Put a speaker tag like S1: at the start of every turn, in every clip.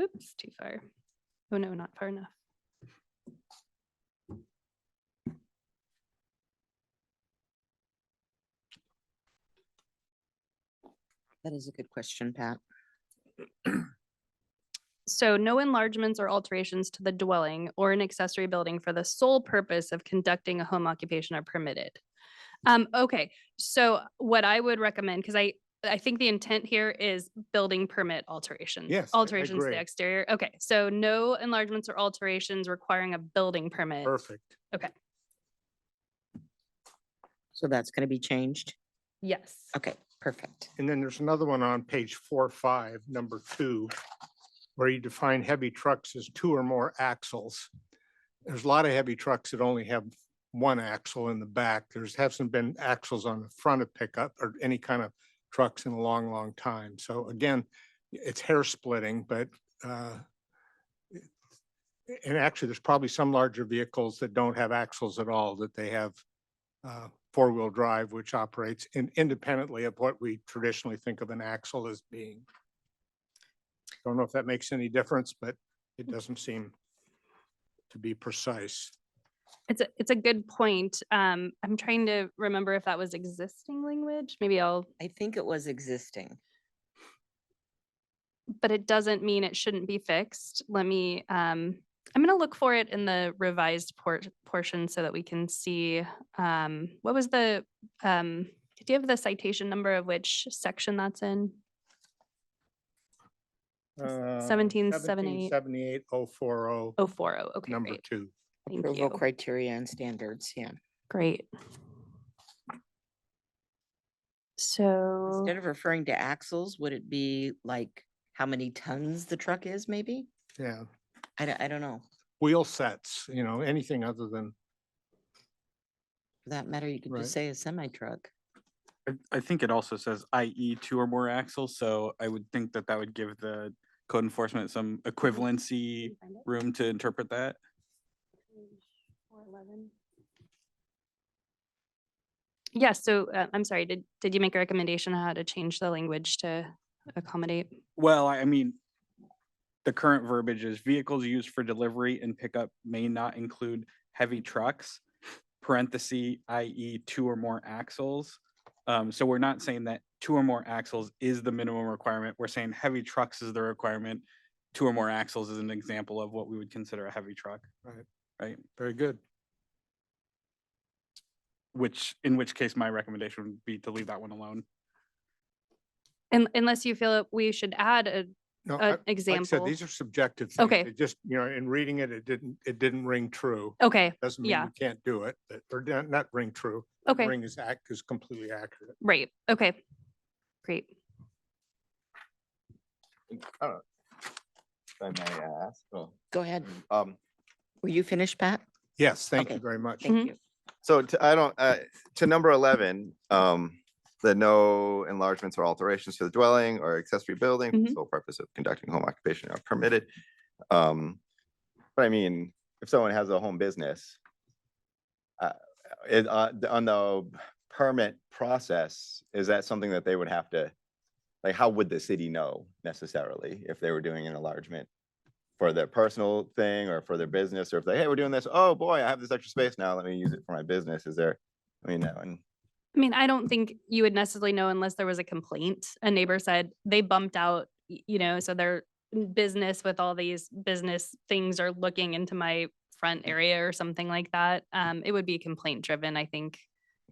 S1: Oops, too far. Oh, no, not far enough.
S2: That is a good question, Pat.
S1: So no enlargements or alterations to the dwelling or an accessory building for the sole purpose of conducting a home occupation are permitted. Um, okay, so what I would recommend, because I, I think the intent here is building permit alterations.
S3: Yes, I- I
S1: Alterations to the
S3: agree.
S1: exterior. Okay, so no enlargements or alterations requiring a building permit.
S3: Perfect.
S2: So that's going to be changed.
S1: Yes.
S2: Okay, perfect.
S3: And then there's another one on page four, five, number two, where you define heavy trucks as two or more axles. There's a lot of heavy trucks that only have one axle in the back. There's hasn't been axles on the front of pickup or any kind of trucks in a long, long time. So again, it's hair splitting, but uh, it- and actually, there's probably some larger vehicles that don't have axles at all, that they have uh, four-wheel drive, which operates in- independently of what we traditionally think of an axle as being. Don't know if that makes any difference, but it
S1: Mm.
S3: doesn't seem to be precise.
S1: It's a, it's a good point. Um, I'm trying to remember if that was existing language. Maybe I'll,
S2: I think it was existing.
S1: but it doesn't mean it shouldn't be fixed. Let me, um, I'm gonna look for it in the revised port, portion so that we can see, um, what was the, um, do you have the citation number of which section that's in?
S3: Uh,
S1: 1778.
S3: 1778-040,
S1: Oh, four oh, okay,
S3: number
S1: great.
S3: two.
S1: Thank
S2: Approval
S1: you.
S2: criteria and standards, yeah.
S1: Great. So,
S2: Instead of referring to axles, would it be like how many tons the truck is maybe?
S3: Yeah,
S2: I don't, I don't know.
S3: wheel sets, you know, anything other than,
S2: For that matter, you could
S3: Right.
S2: just say a semi truck.
S4: I, I think it also says IE two or more axles, so I would think that that would give the code enforcement some
S1: Can
S4: equivalency
S1: you find it?
S4: room to interpret that.
S1: Yeah, so uh, I'm sorry, did, did you make a recommendation on how to change the language to accommodate?
S4: Well, I I mean, the current verbiage is vehicles used for delivery and pickup may not include heavy trucks, parentheses, IE two or more axles. Um, so we're not saying that two or more axles is the minimum requirement. We're saying heavy trucks is the requirement. Two or more axles is an example of what we would consider a heavy truck.
S3: very good.
S4: which in which case my recommendation would be to leave that one alone.
S1: Un- Unless you feel that we should add a-
S3: No, I-
S1: an
S3: like I said,
S1: example.
S3: these are subjective things.
S1: Okay.
S3: It just, you know, in reading it, it didn't, it didn't ring true.
S1: Okay,
S3: Doesn't mean
S1: Yeah.
S3: you can't do it, but, or not- not ring true.
S1: okay,
S3: Ring is act, is completely accurate.
S1: right, okay, great.
S5: if I may ask, well,
S2: Go ahead.
S5: um,
S2: Were you finished, Pat?
S3: Yes, thank you
S2: Okay,
S3: very much.
S2: Thank
S1: Mhm.
S2: you.
S5: so to, I don't, uh, to number eleven, um, the no enlargements or alterations to the dwelling or accessory building, for
S1: Mhm.
S5: the sole purpose of conducting home occupation are permitted. Um, but I mean, if someone has a home business, uh, it, uh, the- on the permit process, is that something that they would have to, like, how would the city know necessarily if they were doing an enlargement? for their personal thing or for their business, or if they, hey, we're doing this, oh boy, I have this extra space now, let me use it for my business, is there? I mean, that one,
S1: I mean, I don't think you would necessarily know unless there was a complaint. A neighbor said they bumped out, y- you know, so their business with all these business things are looking into my front area or something like that. Um, it would be complaint driven, I think,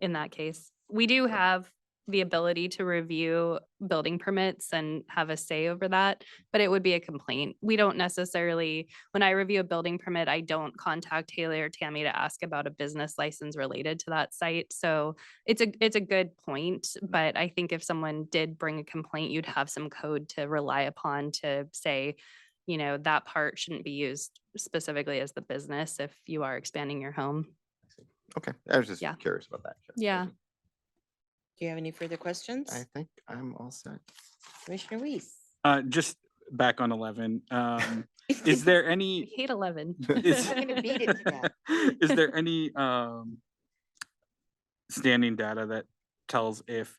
S1: in that case. We do have the ability to review building permits and have a say over that, but it would be a complaint. We don't necessarily, when I review a building permit, I don't contact Haley or Tammy to ask about a business license related to that site. So it's a it's a good point, but I think if someone did bring a complaint, you'd have some code to rely upon to say, you know, that part shouldn't be used specifically as the business if you are expanding your home.
S5: okay, I was just
S1: Yeah.
S5: curious about that. just
S1: Yeah.
S5: wasn't-
S2: Do you have any further questions?
S5: I think I'm all set.
S2: Commissioner Weiss?
S4: Uh, just back on eleven, um, is there
S1: I
S4: any?
S1: hate eleven.
S4: is-
S2: I'm gonna beat it to death.
S4: Is there any, um, standing data that tells if